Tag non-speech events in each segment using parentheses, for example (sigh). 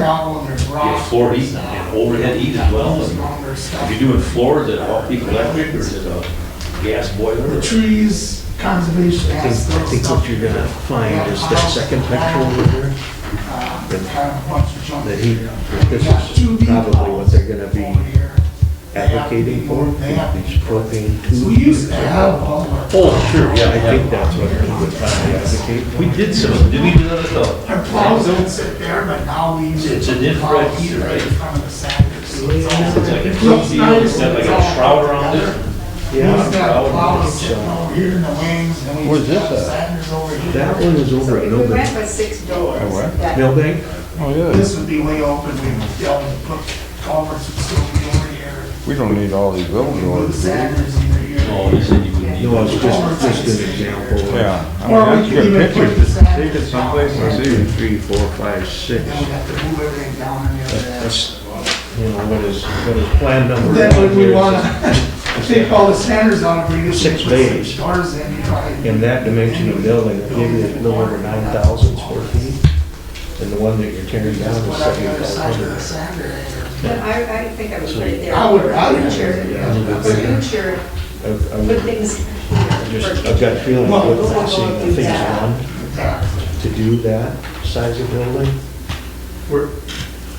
gravel and there's rock. Yeah, floor heat and overhead heat as well. All this longer stuff. If you're doing floors, is it all peak electric or is it a gas boiler? The or- trees, conservation I think, I aspects. think what you're gonna find is that second picture over there, The that he, this is probably what they're gonna be advocating for, these propane tubes. So we used to have all our, Oh, sure, I yeah, think yeah. that's what he would probably advocate for. We did some, did we do that at the? our plows don't sit there, but now we. use It's an infrared plows heater, right? In front of the sander. so it's all- It's like a, Looks it's nice. like a shroud around there. We've got Yeah, plows sitting over here in the wings, and we Where's just got this at? sanders over here. that one is over So at if we went Millbank. with six doors, what? that- Millbank? Oh, yeah. This would be way open, we'd be able to put culverts and stuff over here. We don't need all these building Move orders, do we? sanders either here. Oh, you said you would need. No, it's just, just an example. Yeah. I mean, Or that's we could good even pictures. put the sanders. Take it someplace and see. Three, four, five, six. Then we'd have to move everything down in the other end. That's, you know, what is, what is plan number? Then one when we here is- wanna (laughs) take all the sanders out, bring it. Six bays. Doors in, you probably. in that dimension of building, maybe it's no over nine thousand square feet. And the one that you're tearing down Just is put out the other seventy-five side of the hundred. sander. area. But I, I think I would put it there. I would rather- Future, Yeah, a little bit bigger. future, I've, put I've things here. just, for- I've got a feeling Well, with we'll that, seeing go the do things that. on, to do that size of building. Where,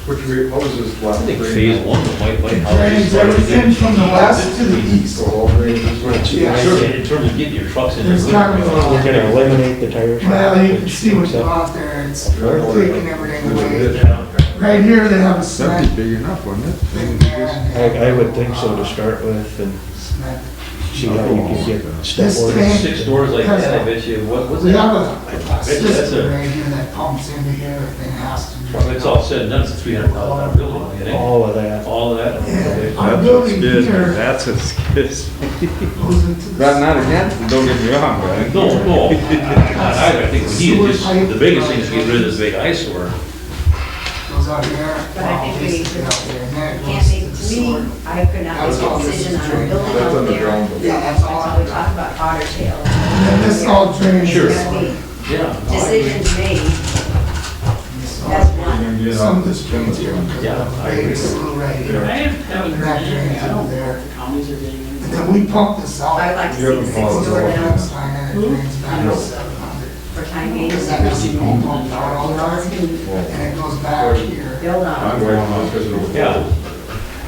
which we, what was this I last? think phase one, the white, white house. Drains everything from the west to the east. So all grades is what it's- Yeah, Sure, in terms of getting your trucks in. there. There's kind of a- We're gonna eliminate the tire shop. Well, you can which see what takes you up- got there, it's Right. taking everything away. Yeah. Right here, they have a That'd cement. be big enough, wouldn't thing it? there and they have, I, I would think so to start with and cement. see how you can get step This orders. thing- Six doors like that, I bet you, what was We it? have a- a that's a- system right here that pumps into here, everything has to. do- When it's all said and done, it's a three hundred thousand dollar building, you think? All of that. All of that. Yeah, okay. our building here That's a skis. goes into the. But not again, don't get me wrong, but I No, no, I, I think we need to just, the biggest thing is get rid of this big eyesore. Goes out here. But I think we- Obviously, out there, and then it Can't goes to the make, to sewer. me, I could not That's make all a this decision is on true. a building That's out underground. there. Yeah, that's That's all. all we talk about otter tail. And then this all Oh, drains. Sure. this way. Yeah. no, I agree. Decisions made, So that's one. Some of this drains here. because Yeah, of the I agree. big slough right here. I haven't And heard that anything. drains I out don't, there. counties are getting anything. And then we pump this out. Oh, I'd like Hmm? to You see haven't six followed door the now It's fine, and it drains back um, to seven hundred. for time being. Because that is, you know, pumped out all Doors around, can and it goes back here. build on. I'm going on because of. Yeah.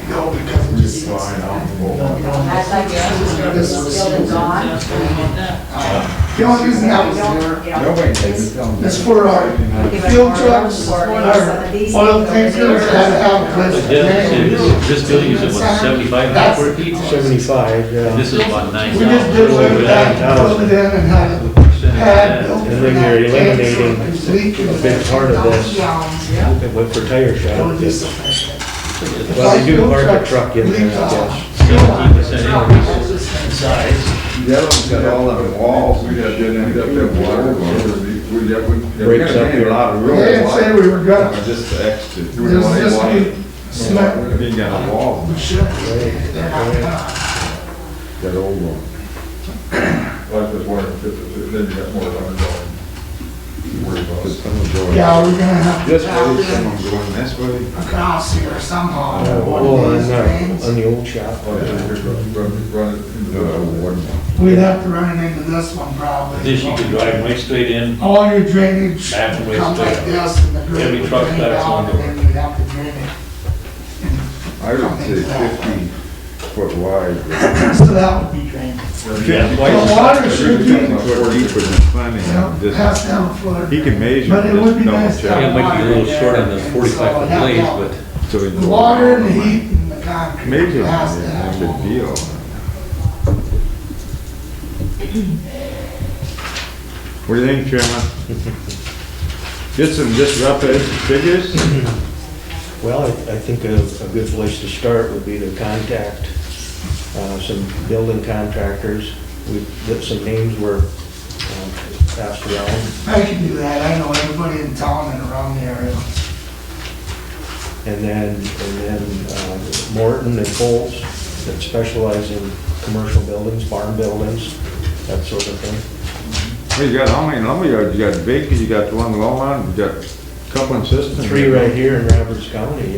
No, because it just. sits Fine, there. I'm- I'd like to see this building gone. Uh, The only reason that was Don't, there you know, Nobody takes just it down. It's for our give it fuel more trucks, room our for maybe some of oil these things over tankers there. that have But this Dennis, drain. this- this building is about seventy-five That's- square feet, Seventy-five, yeah. and this is about nine We thousand. just did away with that, filled it in and had a pad built. And then you're eliminating a big part of this. Yeah. It went for tire It would shop. be sufficient. Well, they do park a truck in there, I guess. Seventeen percent increase in size. The other one's got all them walls. We had, didn't end up that water, we, we, that would. Breaks up your lot of They didn't say we were gonna, Or Uh, Just the extra. You this wouldn't was want to just walk- be cement, You got a wall, we should, they're not gonna. that old one. Like this water, then you got more running going. Worry about it. Someone going- Yeah, we're gonna have to This tap way, in someone going this way. across here somehow, Oh, one on of these the, drains. on the old shop. Oh, Like, run, run, run it into No, the. one. We'd have to run it into this one probably. This you can drive right straight in, all your drainage Back and waste come like it. this and the grade Every would truck drain that's down on and the- then you'd have to drain it. I would say fifty foot wide. but So that would be drained. Yeah, why- The water should be, Fifty foot deeper than plenty. you know, I'm has just- to have a floor. He can measure, But it would just be double nice to check. it have might be a water little short on there, the and forty-five so foot that- blades, that- but So he The knows. water and the heat and the concrete. Major, it has to that's have a all- deal. What do you think, Chairman? (laughs) Get some just rough edge figures? Well, I, I think a, a good place to start would be to contact, uh, some building contractors. We, that some names were, um, passed around. I can do that, I know everybody in town and around the area. And then, and then uh, Morton and Coles that specialize in commercial buildings, barn buildings, that sort of thing. Well, You got how many lumberyards? You got Baker's, you got the one Longmont, you got couple in Siston. Three right here in Roberts County,